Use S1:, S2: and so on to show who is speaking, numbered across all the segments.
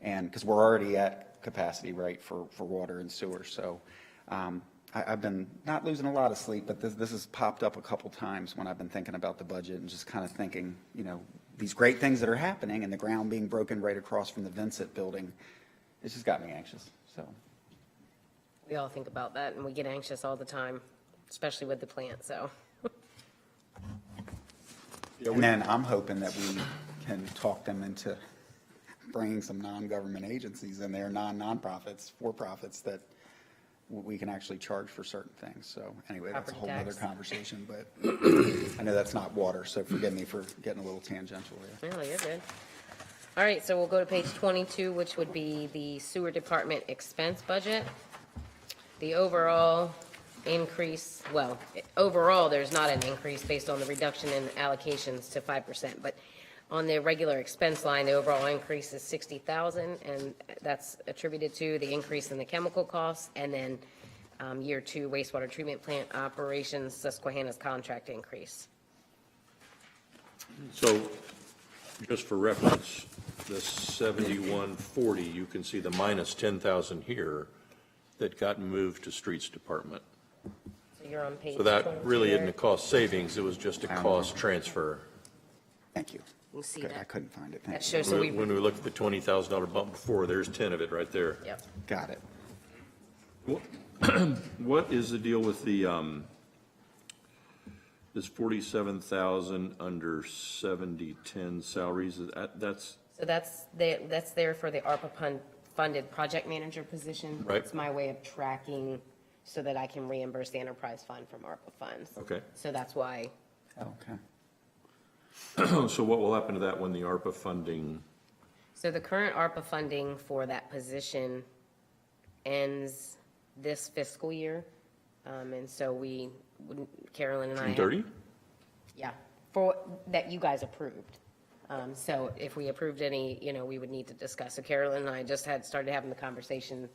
S1: And, because we're already at capacity, right, for, for water and sewer, so um, I, I've been not losing a lot of sleep, but this, this has popped up a couple times when I've been thinking about the budget and just kind of thinking, you know, these great things that are happening and the ground being broken right across from the Vincent Building, it's just got me anxious, so.
S2: We all think about that, and we get anxious all the time, especially with the plant, so.
S1: And then I'm hoping that we can talk them into bringing some non-government agencies in there, non-nonprofits, for-profits that w- we can actually charge for certain things. So anyway, that's a whole
S2: Property
S1: other
S2: tax.
S1: conversation, but I know that's not water, so forgive me for getting a little tangential there.
S2: Really, you're good. All right, so we'll go to page 22, which would be the sewer department expense budget. The overall increase, well, overall, there's not an increase based on the reduction in allocations to 5%, but on the regular expense line, the overall increase is 60,000, and that's attributed to the increase in the chemical costs, and then um, year two wastewater treatment plant operations, Susquehanna's contract increase.
S3: So, just for reference, the seventy-one forty, you can see the minus ten thousand here that got moved to streets department.
S2: So you're on page
S3: So that really
S2: 22.
S3: isn't a cost savings, it was just a cost transfer.
S1: Thank you.
S2: We'll see
S1: Good,
S2: that.
S1: I couldn't find it.
S2: That
S1: Thank you.
S2: shows, so we,
S3: When when we look at the twenty thousand dollar bump before, there's ten of it right there.
S2: yep.
S1: Got it.
S3: What is the deal with the, um, this forty-seven thousand under seventy-ten salaries, that, that's,
S2: So that's, the- that's there for the ARPA pun- funded project manager position.
S3: Right.
S2: It's my way of tracking so that I can reimburse the enterprise fund from ARPA funds.
S3: okay.
S2: So that's why, Oh.
S1: Okay.
S3: Oh, So what will happen to that when the ARPA funding?
S2: so the current ARPA funding for that position ends this fiscal year. Um, And so we, wouldn't- Carolyn and I. have- Yeah, for, that you guys approved. Um, So if we approved any, you know, we would need to discuss. So Carolyn and I just had, started having the conversation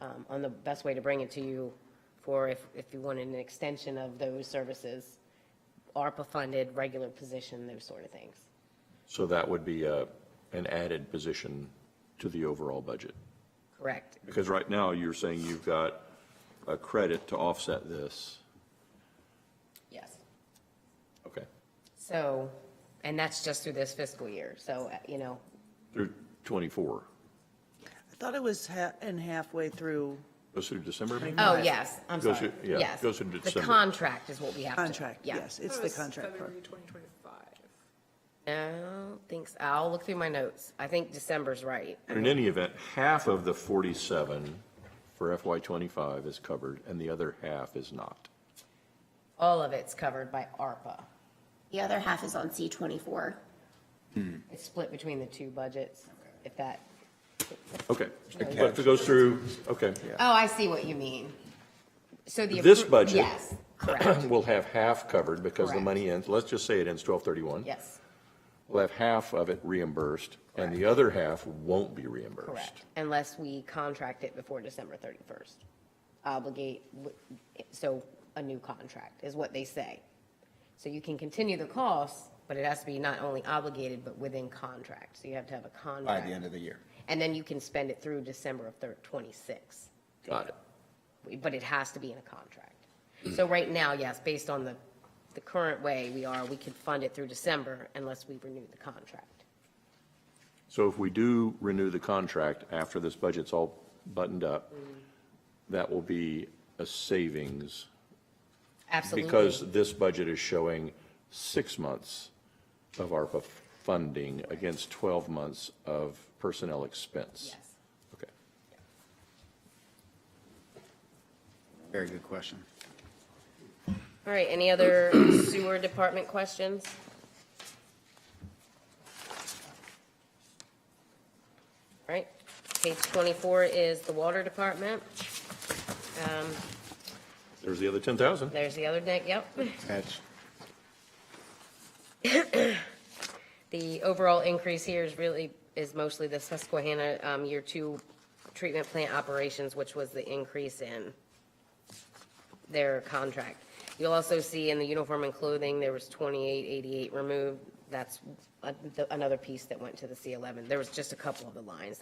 S2: um, on the best way to bring it to you for if, if you wanted an extension of those services, ARPA-funded, regular position, those sort of things.
S3: So that would be uh, an added position to the overall budget?
S2: Correct.
S3: Because right now, you're saying you've got a credit to offset this.
S2: Yes.
S3: Okay.
S2: So, and that's just through this fiscal year. So, uh, you know,
S3: Through 24,
S4: I thought it was ha- in halfway through
S3: goes through December, maybe?
S2: oh, yes, I'm
S3: Goes
S2: sorry.
S3: through- yeah,
S2: Yes.
S3: goes through
S2: The
S3: December.
S2: contract is what we have to.
S4: contract,
S2: yeah.
S4: yes, it's the
S5: That was
S4: contract part.
S5: February 2025.
S2: No, thinks, I'll look through my notes. I think December's right.
S3: In any event, half of the 47 for FY '25 is covered, and the other half is not.
S2: All of it's covered by ARPA.
S6: The other half is on C twenty-four.
S2: It's split between the two budgets, if that,
S3: Okay. But if it goes through, okay.
S2: oh, I see what you mean. So the.
S3: This
S2: appro-
S3: budget-
S2: Yes, correct,
S3: We'll have half covered because the
S2: Correct.
S3: money ends, let's just say it ends 12/31.
S2: yes,
S3: We'll have half of it reimbursed, and the other half won't be reimbursed.
S2: correct, unless we contract it before December thirty-first. Obligate, w- so a new contract is what they say. So you can continue the costs, but it has to be not only obligated, but within contract. So you have to have a contract.
S1: By the end of the year.
S2: And then you can spend it through December of thir- twenty-six.
S3: Got it.
S2: but it has to be in a contract. So right now, yes, based on the, the current way we are, we could fund it through December unless we renew the contract.
S3: So if we do renew the contract after this budget's all buttoned up, that will be a savings
S2: Absolutely.
S3: because this budget is showing six months of ARPA funding against 12 months of personnel expense.
S2: Yes.
S3: Okay.
S1: Very good question.
S2: All right, any other sewer department questions? All right, page 24 is the water department.
S3: There's the other 10,000.
S2: There's the other deck, yep.
S1: That's
S2: The overall increase here is really, is mostly the Susquehanna um, Year Two treatment plant operations, which was the increase in their contract. You'll also see in the uniform and clothing, there was 2888 removed. That's uh, the- another piece that went to the C11. There was just a couple of the lines